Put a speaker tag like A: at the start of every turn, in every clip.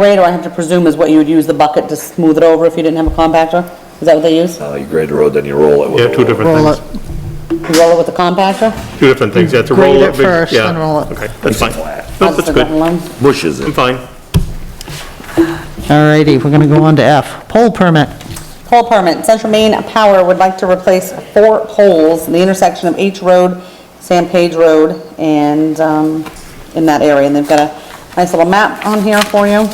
A: grader, I have to presume, is what you would use the bucket to smooth it over if you didn't have a compactor? Is that what they use?
B: Uh, you grade the road, then you roll it with.
C: Yeah,
B: a
C: two
B: roller.
C: different
D: Roll it.
C: things,
A: You roll it with the compactor?
C: two different things, you have to roll.
D: Grade
C: a
D: it
C: big-
D: first,
C: yeah,
D: then roll it.
C: Okay, that's fine, No,
A: That's
C: that's
A: the
C: good,
A: different one.
B: Bushes it.
C: I'm fine.
D: All righty, we're gonna go on to F, pole permit.
A: Pole permit, Central Maine Power would like to replace four poles in the intersection of H Road, San Page Road, and, um, in that area, and they've got a nice little map on here for you.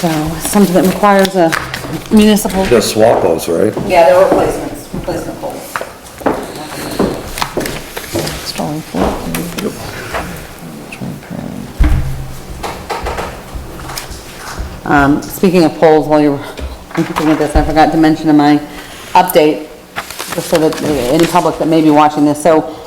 A: So, something that requires a municipal.
B: Just swap those, right?
A: Yeah, they're replacements, replacement poles.
D: Installing pole.
A: Um, speaking of poles, while you're looking at this, I forgot to mention in my update, just so that uh, any public that may be watching this, so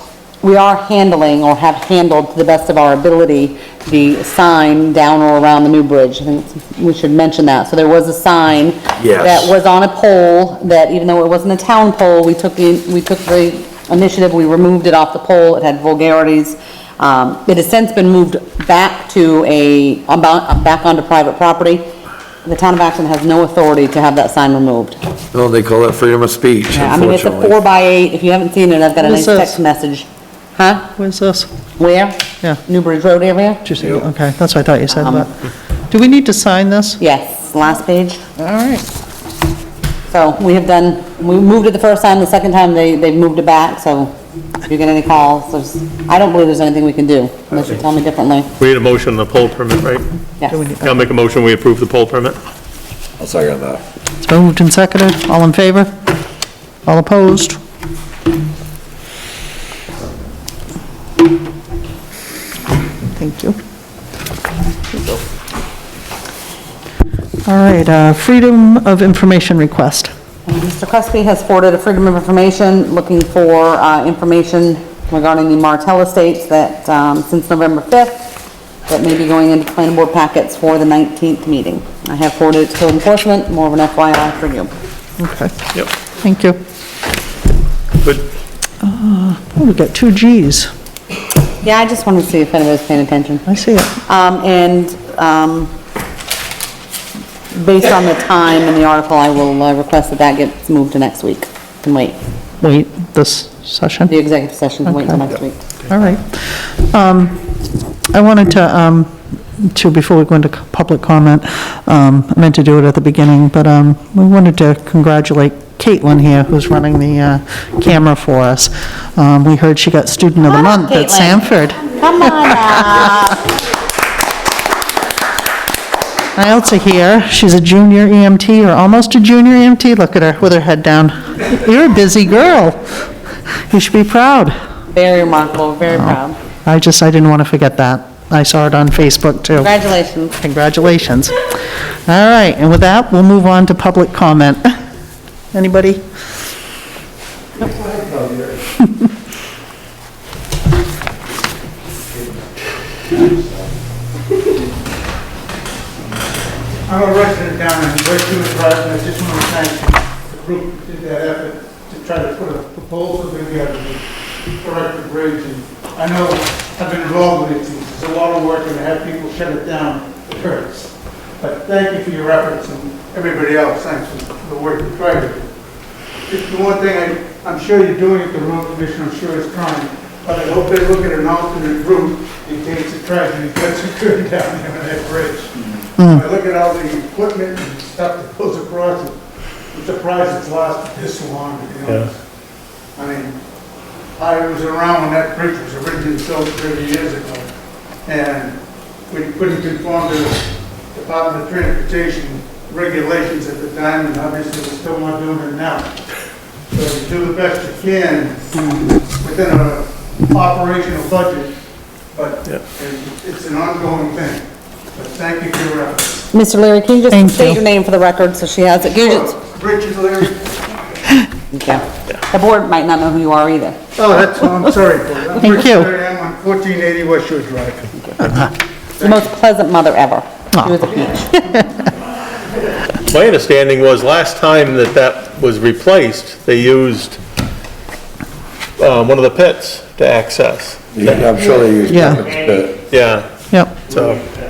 A: we are handling or have handled to the best of our ability the sign down or around the new bridge. I think we should mention that. So there was a sign
B: Yes.
A: that was on a pole that even though it wasn't a town pole, we took the, we took the initiative, we removed it off the pole. It had vulgarities. Um, it has since been moved back to a, about, back onto private property. The town of Acton has no authority to have that sign removed.
B: No, they call that freedom of speech,
A: Yeah, I mean, it's a four
B: unfortunately.
A: by eight, if you haven't seen it, I've got a
D: What is
A: nice text
D: this?
A: message. Huh?
D: Where's this?
A: Where?
D: Yeah.
A: Newbridge Road area?
D: Did you Um, see, okay, that's what I thought you said, but, do we need to sign this?
A: Yes, last page.
D: All right,
A: So we have done, we moved it the first time, the second time they, they've moved it back, so if you get any calls, there's, I don't believe there's anything we can do, unless you tell me differently.
C: We need a motion on the poll permit, right?
D: Do we need-
A: Yes.
C: I'll make a motion, we approve the poll permit.
B: I'll second that.
D: it's been moved and seconded, all in favor? All opposed? Thank you. All right, uh, freedom of information request.
A: Mr. Crespi has forwarded a Freedom of Information looking for uh, information regarding the Martell Estates that, um, since November 5th, that may be going into planning board packets for the 19th meeting. I have forwarded it to code enforcement, more of an FYI for you.
D: Okay,
C: Yep,
D: thank you.
C: good.
D: Oh, we got two Gs.
A: Yeah, I just wanted to see if anybody's paying attention.
D: I see it.
A: Um, and, um, based on the time in the article, I will uh, request that that gets moved to next week. Can wait,
D: Wait, this session?
A: the executive session can wait until next week.
D: All right. Um, I wanted to, um, to, before we go into public comment, um, I meant to do it at the beginning, but um, we wanted to congratulate Caitlin here, who's running the uh, camera for us. Um, We heard she got Student of the
A: Hi,
D: Month at
A: Caitlin.
D: Sanford.
A: Come on up.
D: I also hear she's a junior EMT, or almost a junior EMT. Look at her, with her head down. You're a busy girl. You should be proud.
A: Very remarkable,
D: Oh.
A: very proud.
D: I just, I didn't want to forget that. I saw it on Facebook, too.
A: Congratulations.
D: Congratulations. All right, and with that, we'll move on to public comment. Anybody?
E: I'm a resident down in Westwood, Rhode and I just want to thank the group that did that effort to try to put a proposal together to correct the bridge. And I know I've been involved with it, it's a lot of work, and to have people shut it down it hurts. But thank you for your efforts, and everybody else, thanks for the work you tried to do. Just the one thing, I- I'm sure you're doing it, the road commission, I'm sure is trying, but I hope they look at an alternate route in case the tragedy gets occurred down there on that bridge. I look at all the equipment and stuff that goes across it, I'm surprised it's lasted this long, to be honest. I mean, I was around when that bridge was originally built 30 years ago, and we couldn't conform to the Department of Transportation regulations at the time, and obviously we're still not doing it now. So you do the best you can within an operational budget, but
C: Yeah.
E: it's it's an ongoing thing. But thank you for your efforts.
A: Mr. Leary, can you
D: Thank
A: just state
D: you.
A: your name for the record so she has it? Can you just-
E: Richard Leary.
A: Thank you. The board might not know who you are either.
E: Oh, that's, I'm sorry. for that. I'm
D: Thank
E: Richard
D: you.
E: Leary, I'm on 1480 West Shore Drive.
A: The most pleasant mother ever.
D: Aw.
A: She was a peach.
C: My understanding was last time that that was replaced, they used, uh, one of the pits to access.
B: Yeah, I'm sure they use.
D: Yeah.
B: But
C: Yeah,
D: Yep,
C: so,